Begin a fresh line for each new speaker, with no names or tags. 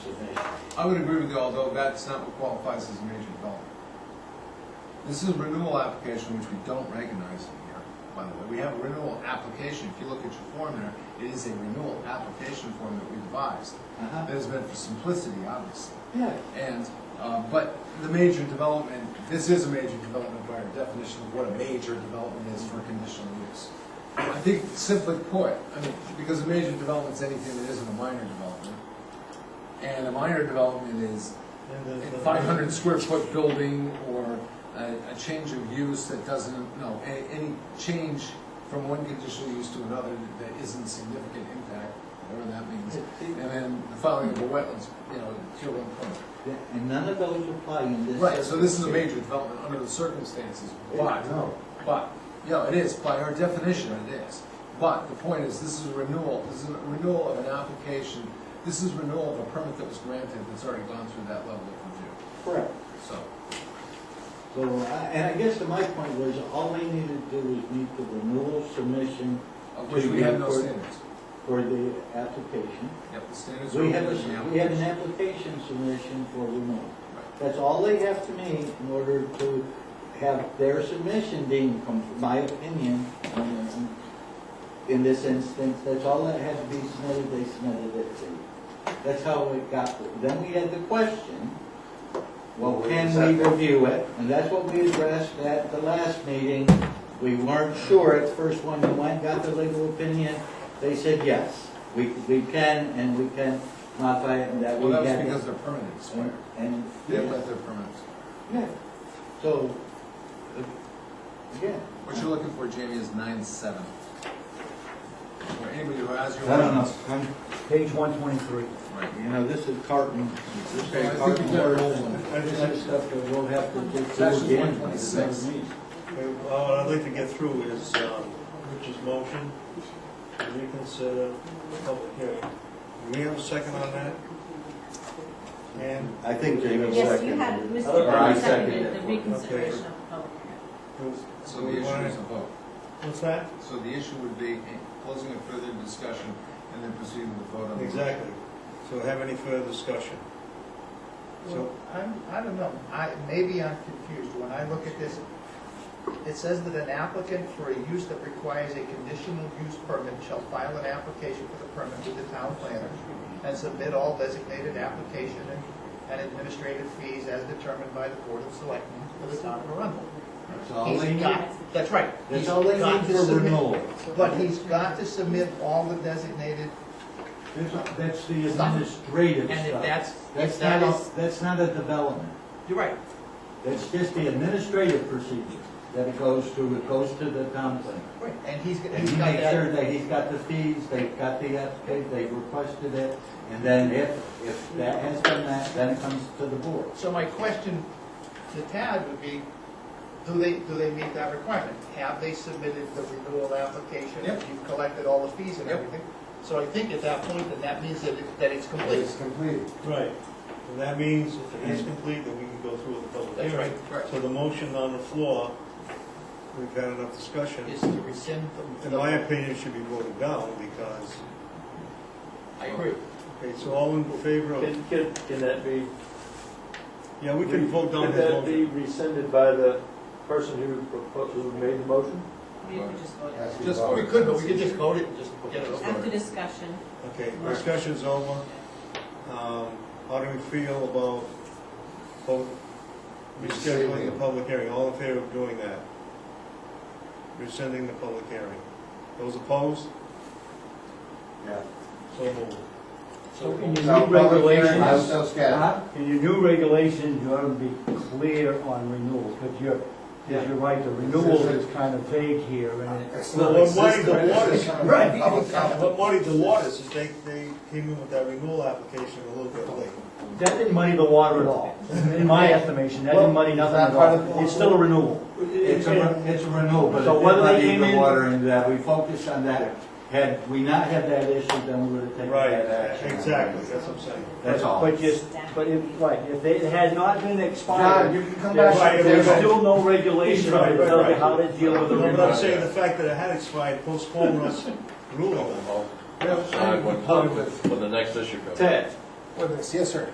Uh-huh.
I would agree with you, although that's not what qualifies as a major development. This is a renewal application, which we don't recognize in here, by the way. We have a renewal application. If you look at your form there, it is a renewal application form that we devised.
Uh-huh.
That has been for simplicity, obviously.
Yeah.
And, uh, but the major development, this is a major development by our definition of what a major development is for conditional use. I think simply put, I mean, because a major development's anything that isn't a minor development. And a minor development is
And
uh,
the-
a
the-
five hundred square foot building or a, a change of use that doesn't, no, any, any change from one conditional use to another that isn't significant impact, whatever that means. And then the filing of a wetlands, you know, tier one permit.
Yeah, And none of those apply in this.
Right, so this is a
circumstance.
major development under the circumstances, but,
No,
but, you know, it is, by our definition, it is. But the point is, this is a renewal, this is a renewal of an application, this is renewal of a permit that was granted that's already gone through that level of review,
Correct.
so.
So, I- and I guess to my point was, all they needed to do is meet the renewal submission
Of which we have no standards.
for the application.
Yep, the standards are.
We have,
within the
a- we have an
application.
application submission for renewal.
Right.
That's all they have to meet in order to have their submission deemed, com- my opinion, on this. in this instance, that's all that had to be submitted, they submitted it to. That's how it got, there. then we had the question, well,
Well,
can
is
we
that-
review it? And that's what we addressed at the last meeting. We weren't sure at the first one, we went, got the legal opinion, they said yes. We, we can, and we can modify it, and that
Well,
we
that
have.
was
it.
because their permit expired,
And- And,
they have let their permit expire.
yeah, so, uh, yeah.
What you're looking for, Jamie, is nine seven. Or anybody who has your.
I don't know, I'm- page one twenty-three.
Right.
You know, this is carton, this
Well, I
is
think
carton
you got it
words,
all.
and this is stuff that we'll have to just do
Section
again.
126.
Okay, well, What I'd like to get through is um, Rich's motion to reconsider the public hearing. Do we have a second on that? And
I think Jamie
Yes, you had,
seconded. it.
Mr.
Or I
Bennett seconded
seconded
the
it.
reconsideration of the public hearing.
So the issue is a vote.
What's that?
So the issue would be closing a further discussion and then proceeding with
Um,
vote on the.
Exactly. So have any further discussion?
Well, I'm, I don't know, I, maybe I'm confused, when I look at this, it says that an applicant for a use that requires a conditional use permit shall file an application for the permit with the town planner and submit all designated application and, and administrative fees as determined by the board of selectmen for the town of Arundel.
That's all
He's
they need,
got, that's right.
that's
he's
all they
got
need
to
for
submit-
renewal.
But he's got to submit all the designated,
That's, that's the administrative
and if
stuff.
that's, if
That's
that
not,
is,
a- that's not a development,
you're right,
that's just the administrative procedure that it goes to, it goes to the town planner.
right, and he's,
And
he's
he
got
makes
that.
sure that he's got the fees, they've got the application, they've requested it, and then if, if that has done that, then it comes to the board.
So my question to Tad would be, do they, do they meet that requirement? Have they submitted the renewal application?
Yep.
You've collected all the fees and
Yep.
everything? So I think at that point, then that means that, it- that it's complete.
completed.
Right. And that means if it is complete, then we can go through with the public
That's
hearing.
right, correct.
So the motion on the floor, we've had enough discussion.
Is to rescind the.
In my opinion, it should be voted down because,
I agree.
okay, so all in favor of,
Can, can, can that be?
yeah, we can vote down
Can
his
that be
motion.
rescinded by the person who proposed, who made the motion?
We could just vote.
Yes.
Just
Oh, We
vote.
could, but we could just vote it and just get it over.
After discussion,
Okay, discussion's over. Um, How do we feel about vote- rescheduling the public hearing? All in favor of doing that? Rescinding the public hearing. Those opposed?
Yeah.
So moved.
So in your
No,
new
public hearing, I was
regulations,
so
Uh-huh.
scared.
Huh?
in your new regulations, you ought to be clear on renewals, because you're, because you're right, the renewal is kind of vague here, and it.
It's
Well, what Marty, the water,
Right.
what Marty, the waters, is they, they came in with that renewal application a little bit late.
That didn't muddy the water at all, in my estimation, that didn't muddy nothing at all, it's still a renewal.
It's a, it's a renewal, but
So whether they
if they
came
muddied
in-
the water into that, we focused on that. Had we not had that issue, then we would have taken
Right,
that action.
exactly, that's what I'm saying.
That's all.
But just, but if, right, if they it had not been
John,
expired,
you can come
There's
back.
Right,
there's
right.
still no regulation
Right,
on
right, right.
how to deal with a
No, but I'm
renewal.
saying the fact that it had expired postponed us ruling.
Yeah,
Decide
I'm
when,
fine with-
when the next issue comes.
Ted?
Whether it's yes or